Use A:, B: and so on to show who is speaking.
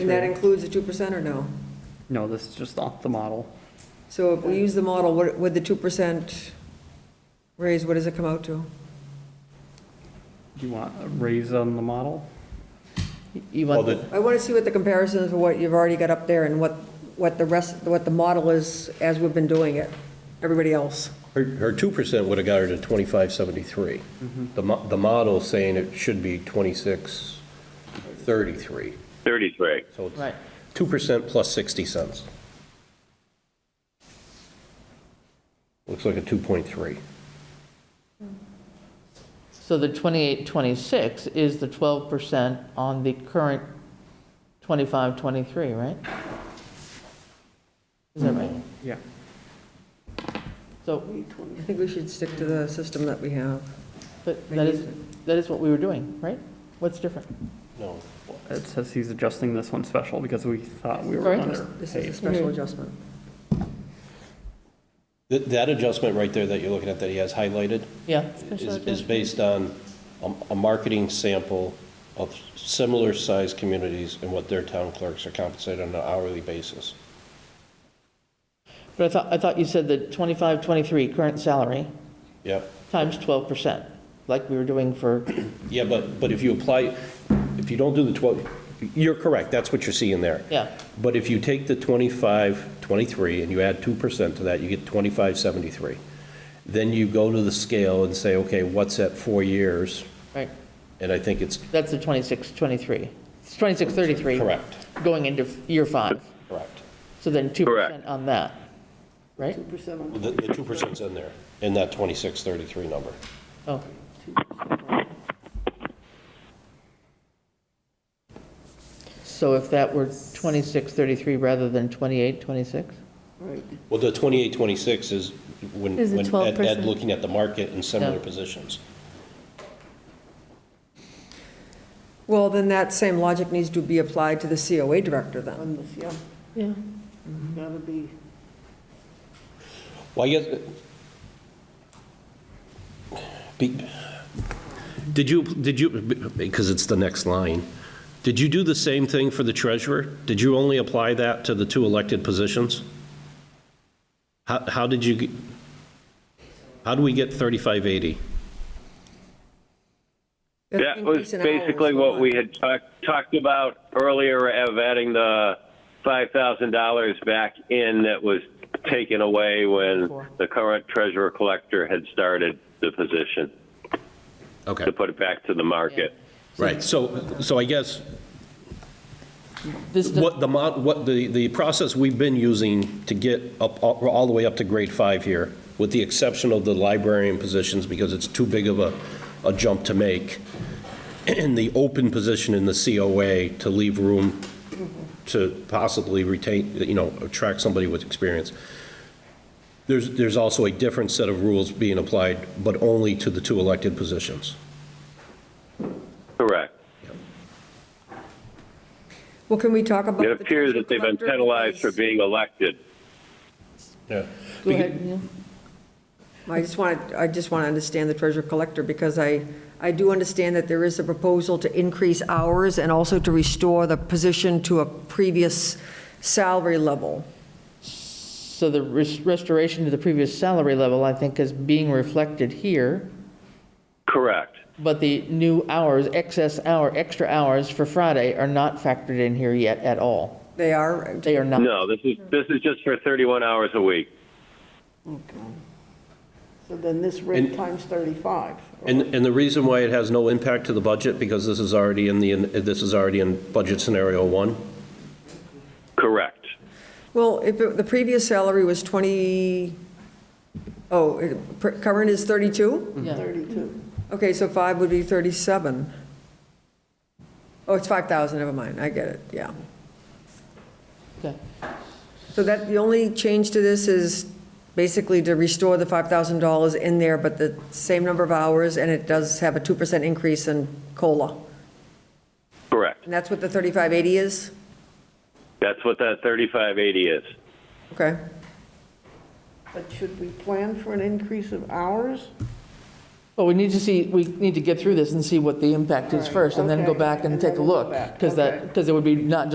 A: And that includes the two percent or no?
B: No, this is just off the model.
A: So if we use the model, what, with the two percent raise, what does it come out to?
B: Do you want a raise on the model?
C: You
D: Well,
C: want,
D: the,
A: I want to see what the comparison is of what you've already got up there and what, what the rest, what the model is as we've been doing it, everybody else.
D: her, her 2% would have got her to 2573. The, mo- the model's saying it should be 2633.
E: 33.
D: So it's
C: Right.
D: 2% plus 60 cents. Looks like a 2.3.
C: so the 28, 26 is the 12% on the current 25, 23, right? Is that right?
B: Yeah.
C: So,
A: I think we should stick to the system that we have.
C: but that is, that is what we were doing, right? What's different?
D: No.
B: It says he's adjusting this one special because we thought we were
C: Sorry?
B: under.
A: This is a special adjustment.
D: That, that adjustment right there that you're looking at that he has highlighted
C: Yeah?
D: is, is based on a, a marketing sample of similar-sized communities and what their town clerks are compensated on an hourly basis.
C: But I thought, I thought you said that 25, 23, current salary,
D: Yep.
C: times 12%, like we were doing for,
D: Yeah, but, but if you apply, if you don't do the 12, you're correct, that's what you're seeing there.
C: yeah.
D: But if you take the 25, 23, and you add 2% to that, you get 2573. Then you go to the scale and say, okay, what's at four years?
C: Right,
D: And I think it's
C: that's the 26, 23. It's 26, 33.
D: correct,
C: Going into year five.
D: correct.
C: So then 2%
E: Correct.
C: on that, right?
D: The the 2%'s in there, in that 2633 number.
C: Oh, so if that were 26, 33 rather than 28, 26?
D: Well, the 2826 is when,
F: Is the
D: when Ed- Ed
F: 12%.
D: looking at the market and similar
C: Yeah.
D: positions.
A: Well, then that same logic needs to be applied to the COA director then.
G: on this, yeah,
F: Yeah,
G: gotta be.
D: Well, I guess. Be- Did you, did you, because it's the next line, did you do the same thing for the treasurer? Did you only apply that to the two elected positions? How, how did you, get- how do we get 3580?
E: That was
A: Increase in hours,
E: basically
A: hold
E: what
A: on.
E: we had talked, talked about earlier of adding the $5,000 back in that was taken away when the current treasurer collector had started the position,
D: Okay,
E: to put it back to the market.
D: right, so, so I guess
C: This, does-
D: what the, mod- what the, the process we've been using to get up, up- all the way up to grade five here, with the exception of the librarian positions, because it's too big of a, a jump to make, and the open position in the COA to leave room to possibly retain, you know, attract somebody with experience. There's, there's also a different set of rules being applied, but only to the two elected positions.
E: Correct.
A: Well, can we talk about?
E: It
A: the
E: appears that they've been
A: collector
E: penalized for
A: because-
E: being elected.
D: Yeah.
C: go ahead, Neil.
A: I just want, I just want to understand the treasure collector, because I, I do understand that there is a proposal to increase hours and also to restore the position to a previous salary level.
C: So the res- restoration to the previous salary level, I think, is being reflected here,
E: Correct.
C: but the new hours, excess hour, extra hours for Friday are not factored in here yet at all.
A: They are,
C: They are not.
E: No, this is, this is just for 31 hours a week.
G: Okay. So then this rate
D: And-
G: times 35.
D: And, and the reason why it has no impact to the budget, because this is already in the, this is already in budget scenario one?
E: Correct.
A: well, if it- the previous salary was 20, oh, it- per- current is 32?
C: Yeah.
G: 32.
A: Okay, so five would be 37. Oh, it's 5,000, never mind, I get it, yeah.
C: Okay.
A: So that, the only change to this is basically to restore the $5,000 in there, but the same number of hours, and it does have a 2% increase in COLA.
E: Correct.
A: And that's what the 3580 is?
E: That's what that 3580 is.
A: Okay.
G: But should we plan for an increase of hours?
C: Well, we need to see, we need to get through this and see what the impact is
G: Right,
C: first, and then go
G: okay,
C: back and
G: and then
C: take a
G: we'll go
C: look.
G: back,
C: Because
G: okay.
C: that, because it would be not